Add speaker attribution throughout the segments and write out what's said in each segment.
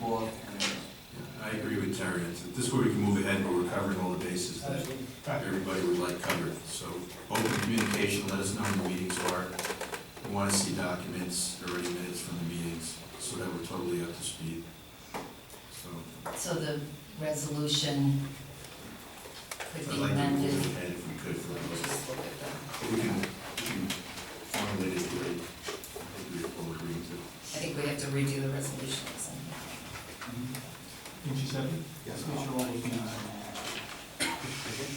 Speaker 1: board. and-
Speaker 2: I agree with Terry, It's- this way we can move ahead, but we're covering all the bases that everybody would like covered. So open communication, let us know when the meetings are. We want to see documents, already minutes from the meetings, so that we're totally up to speed. So
Speaker 3: So the resolution could
Speaker 2: I'd
Speaker 3: be
Speaker 2: like to
Speaker 3: amended,
Speaker 2: move ahead if we could for those.
Speaker 3: just look at that.
Speaker 2: But We can, we can formulate it the way we all agree to.
Speaker 3: I think we have to redo the resolution or something.
Speaker 4: Didn't you say?
Speaker 1: Yes.
Speaker 4: Make sure all those meetings are.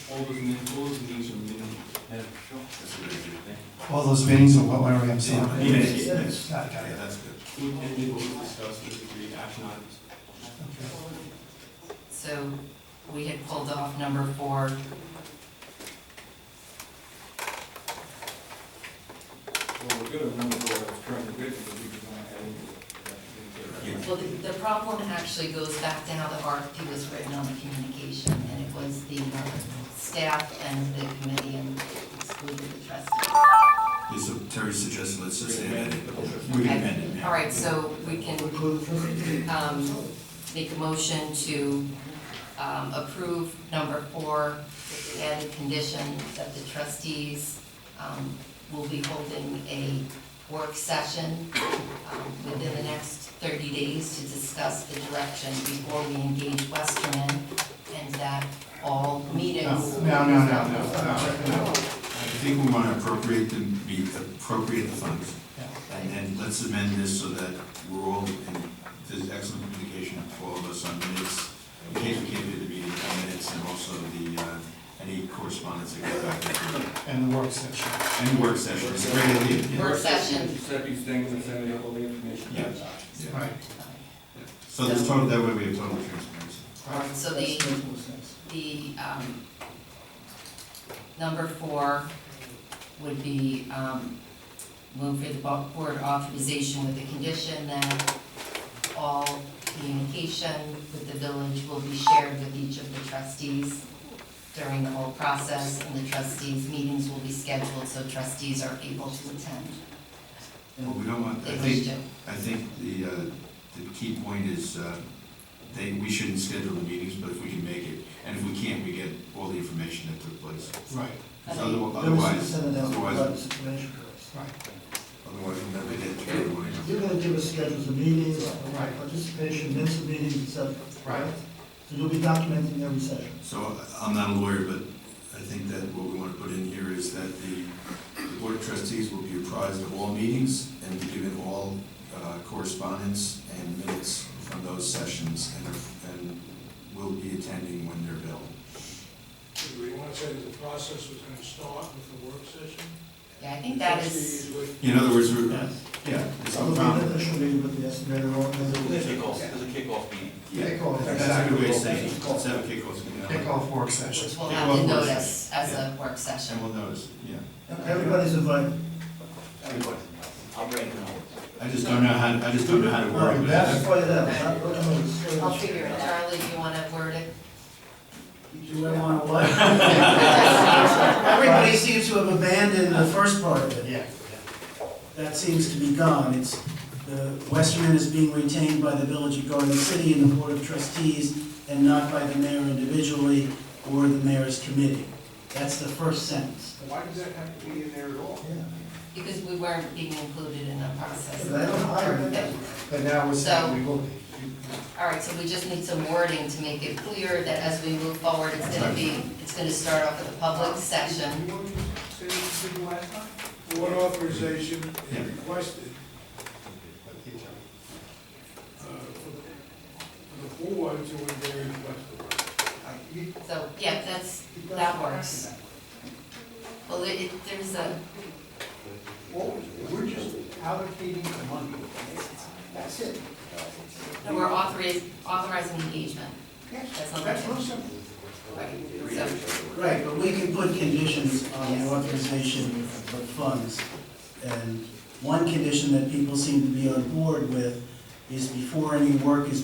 Speaker 4: All those meetings, all those meetings are minimum.
Speaker 2: That's a good idea.
Speaker 5: All those meetings are what, where we have seen.
Speaker 4: Minutes.
Speaker 2: Minutes.
Speaker 5: Got it, got
Speaker 2: Yeah,
Speaker 5: it.
Speaker 2: that's good.
Speaker 4: Would any of those discussed with agreed action items?
Speaker 5: Okay.
Speaker 3: So we had pulled off number four.
Speaker 6: Well, we're good on number four, I was trying to get to, but we could not add any.
Speaker 2: Yeah.
Speaker 3: Well, the, the problem actually goes back to how the RFP was written on the communication, and it was the uh, staff and the committee and excluded the trustees.
Speaker 2: Yeah, So Terry suggested, let's just amend it. We can amend it now.
Speaker 3: All right, so we can, um, make a motion to, um, approve number four, with the added condition that the trustees, um, will be holding a work session, um, within the next thirty days to discuss the direction before we engage Westerman, and that all meetings.
Speaker 5: No, no, no, no, no, no.
Speaker 2: I think we want to appropriate the, be- appropriate the funds,
Speaker 5: Yeah.
Speaker 2: and then let's amend this so that we're all, and there's excellent communication for all of us on minutes, in case we can't do the meeting on minutes, and also the, uh, any correspondence that goes back and
Speaker 5: And the work session.
Speaker 2: forth. Any work session, it's a great idea. yeah.
Speaker 3: Work session.
Speaker 6: Set these things and send it all the information.
Speaker 2: Yeah. Yeah.
Speaker 5: Right.
Speaker 2: So there's total, that way we have total transparency.
Speaker 3: All right, so the, the, um, number four would be, um, move for the bo- board authorization with the condition that all communication with the village will be shared with each of the trustees during the whole process, and the trustees' meetings will be scheduled so trustees are able to attend.
Speaker 2: Well, we don't want, I
Speaker 3: They wish
Speaker 2: think,
Speaker 3: to.
Speaker 2: I think the, uh, the key point is, uh, they, we shouldn't schedule the meetings, but if we can make it, and if we can't, we get all the information that took place.
Speaker 5: Right,
Speaker 3: I
Speaker 2: Because
Speaker 3: think-
Speaker 2: otherwi- Otherwise, otherwise,
Speaker 5: right.
Speaker 2: otherwise we'll never get to everyone.
Speaker 7: You're gonna give us schedules of meetings,
Speaker 5: Right.
Speaker 7: participation, minutes of meetings, et cetera.
Speaker 5: Right.
Speaker 7: So you'll be documenting every session.
Speaker 2: So I- I'm not a lawyer, but I think that what we want to put in here is that the the Board of Trustees will be apprised of all meetings and be given all uh, correspondence and minutes from those sessions and are- and will be attending when they're available.
Speaker 8: Do we want to say that the process was going to start with the work session?
Speaker 3: Yeah, I think that is,
Speaker 8: Trustees would-
Speaker 2: In other words, we're, yeah, it's
Speaker 7: So
Speaker 2: all
Speaker 7: we'll be
Speaker 2: found.
Speaker 7: initially with the estimator on
Speaker 6: There's a
Speaker 7: the.
Speaker 6: kickoff, there's a kickoff meeting.
Speaker 2: Yeah,
Speaker 7: Kickoff.
Speaker 2: That's a good way of saying it. Let's have a kickoff. yeah.
Speaker 5: Kickoff work session.
Speaker 3: which we'll have to
Speaker 2: Kickoff work
Speaker 3: notice as a work
Speaker 2: And
Speaker 3: session.
Speaker 2: we'll notice, yeah.
Speaker 7: Everybody's invited.
Speaker 6: Everybody. I'm ready now.
Speaker 2: I just don't know how, I just don't know how to word it.
Speaker 7: That's why that, was not what I was saying.
Speaker 3: I'll figure it, Charlie, do you wanna word it?
Speaker 1: Do I want to what?
Speaker 7: Everybody seems to have abandoned the first part of it.
Speaker 1: Yeah.
Speaker 7: That seems to be gone. It's, the Westerman is being retained by the Village of Garden City and the Board of Trustees and not by the mayor individually or the mayor's committee. That's the first sentence.
Speaker 8: Why does that have to be in there at all?
Speaker 3: Because we weren't being included in the process.
Speaker 7: They don't hire them.
Speaker 5: But now we're saying we will be.
Speaker 3: All right, so we just need some wording to make it clear that as we move forward, it's gonna be, it's gonna start off with a public session.
Speaker 8: You want to say this to the last time? Board authorization
Speaker 2: Yeah.
Speaker 8: is requested uh, for the- for the board to engage with.
Speaker 3: So, yeah, that's, that works. Well, it, it- there's a,
Speaker 1: We're just allocating the money. That's it.
Speaker 3: no, we're authorizing, authorizing engagement. That's not
Speaker 1: That's real
Speaker 3: right.
Speaker 1: simple.
Speaker 3: So,
Speaker 7: Right, but we can put conditions on the authorization of funds. And one condition that people seem to be on board with is before any work is